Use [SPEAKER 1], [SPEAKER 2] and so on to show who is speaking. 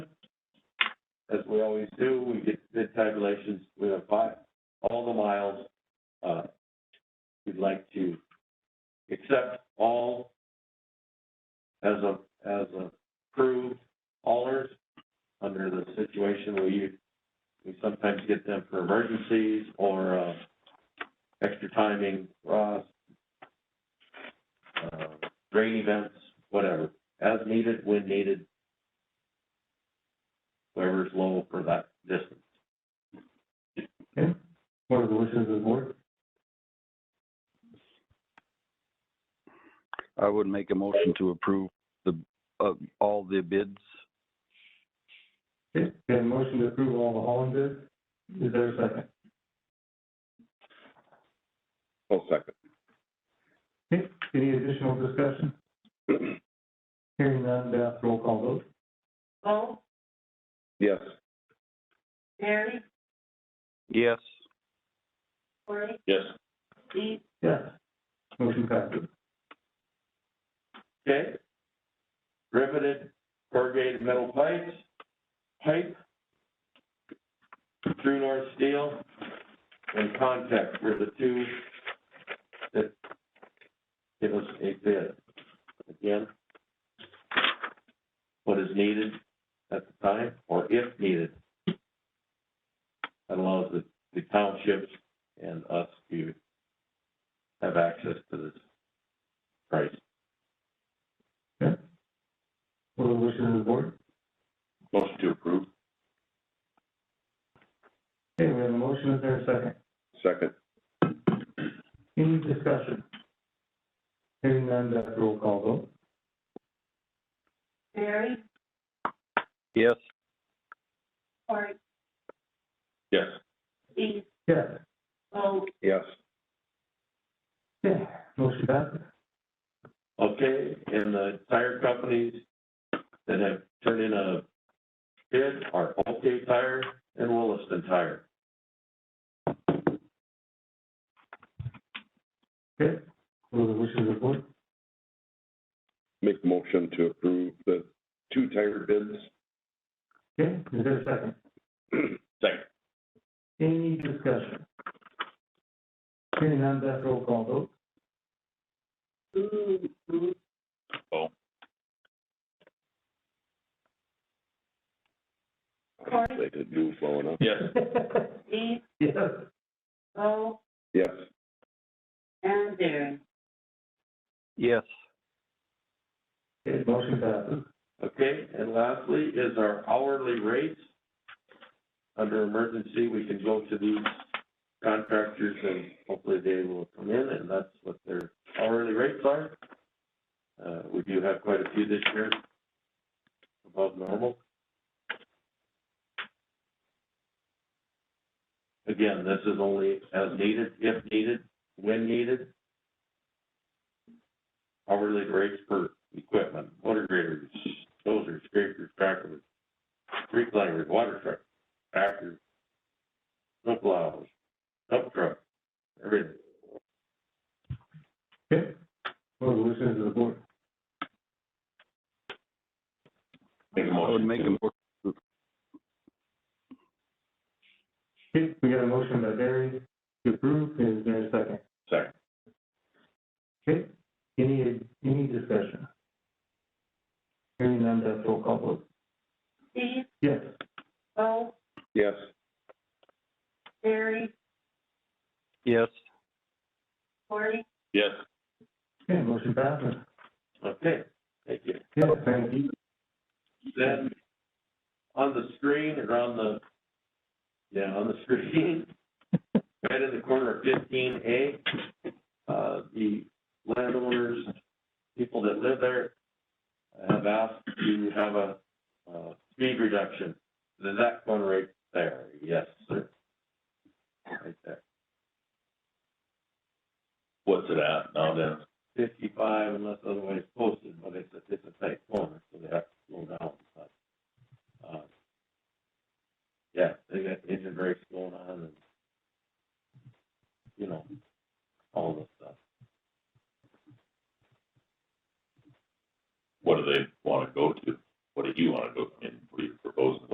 [SPEAKER 1] as we always do, we get the tabulations, we have five, all the miles. Uh, We'd like to accept all as a, as approved haulers under the situation we, we sometimes get them for emergencies or, uh, extra timing, Ross, uh, rain events, whatever, as needed, when needed, whoever's low for that distance.
[SPEAKER 2] What are the wishes of the board?
[SPEAKER 3] I would make a motion to approve the, uh, all the bids.
[SPEAKER 2] Okay, we have a motion to approve all the hauling bids. Is there a second?
[SPEAKER 4] I'll second.
[SPEAKER 2] Okay, any additional discussion? Hearing none, Beth, roll call vote.
[SPEAKER 5] Bo,
[SPEAKER 4] Yes.
[SPEAKER 5] Mary,
[SPEAKER 3] Yes.
[SPEAKER 5] Cory,
[SPEAKER 4] Yes.
[SPEAKER 5] Steve,
[SPEAKER 2] Yes. Motion passes.
[SPEAKER 1] Okay. Riveted corrugated metal pipes, pipe, True North Steel, and Contact were the two that give us a bid. Again, what is needed at the time, or if needed. That allows the, the townships and us to have access to this price.
[SPEAKER 2] What are the wishes of the board?
[SPEAKER 4] Motion to approve.
[SPEAKER 2] Okay, we have a motion. Is there a second?
[SPEAKER 4] Second.
[SPEAKER 2] Any discussion? Hearing none, Beth, roll call vote.
[SPEAKER 5] Mary,
[SPEAKER 3] Yes.
[SPEAKER 5] Cory,
[SPEAKER 4] Yes.
[SPEAKER 5] Steve,
[SPEAKER 2] Yes.
[SPEAKER 5] Bo,
[SPEAKER 4] Yes.
[SPEAKER 2] Okay, motion passes.
[SPEAKER 1] okay, and the tire companies that have turned in a bid are OK Tire and Williston Tire.
[SPEAKER 2] Okay, what are the wishes of the board?
[SPEAKER 4] Make motion to approve the two tire bids.
[SPEAKER 2] Okay, is there a second?
[SPEAKER 4] Second.
[SPEAKER 2] Any discussion? Hearing none, Beth, roll call vote.
[SPEAKER 5] Ooh, ooh,
[SPEAKER 4] Bo. They did move well enough. Yes.
[SPEAKER 5] Steve,
[SPEAKER 2] Yes.
[SPEAKER 5] Bo,
[SPEAKER 4] Yes.
[SPEAKER 5] and Darren.
[SPEAKER 3] Yes.
[SPEAKER 2] Okay, motion passes.
[SPEAKER 1] Okay, and lastly is our hourly rates. Under emergency, we can go to these contractors and hopefully they will come in and that's what their hourly rates are. Uh, we do have quite a few this year, above normal. Again, this is only as needed, if needed, when needed. Hourly rates for equipment, motor graders, dozers, scrapers, tractors, street liners, water truck, tractors, snow plows, dump truck, everything.
[SPEAKER 2] Okay, what are the wishes of the board?
[SPEAKER 4] Make a
[SPEAKER 3] I would
[SPEAKER 4] motion
[SPEAKER 3] make a,
[SPEAKER 4] to-
[SPEAKER 3] mo-
[SPEAKER 2] Okay, we got a motion by Barry to approve, is there a second?
[SPEAKER 4] Second.
[SPEAKER 2] Okay, any, any discussion? Hearing none, Beth, roll call vote.
[SPEAKER 5] Steve,
[SPEAKER 2] Yes.
[SPEAKER 5] Bo,
[SPEAKER 4] Yes.
[SPEAKER 5] Mary,
[SPEAKER 3] yes.
[SPEAKER 5] Cory,
[SPEAKER 4] Yes.
[SPEAKER 2] Okay, motion passes.
[SPEAKER 1] Okay, thank you.
[SPEAKER 2] Yeah, thank you.
[SPEAKER 1] Then, on the screen or on the, yeah, on the screen, right in the corner of fifteen A, uh, the landowners, people that live there have asked to have a, uh, speed reduction. Is that one right there? Yes, sir. Right there.
[SPEAKER 4] What's it at now, Dennis?
[SPEAKER 1] fifty-five unless otherwise posted, but it's a, it's a tight corner, so they have to slow down, but, uh, yeah, they got engine brakes going on and, you know, all this stuff.
[SPEAKER 4] What do they wanna go to? What do you wanna go, and what do you propose?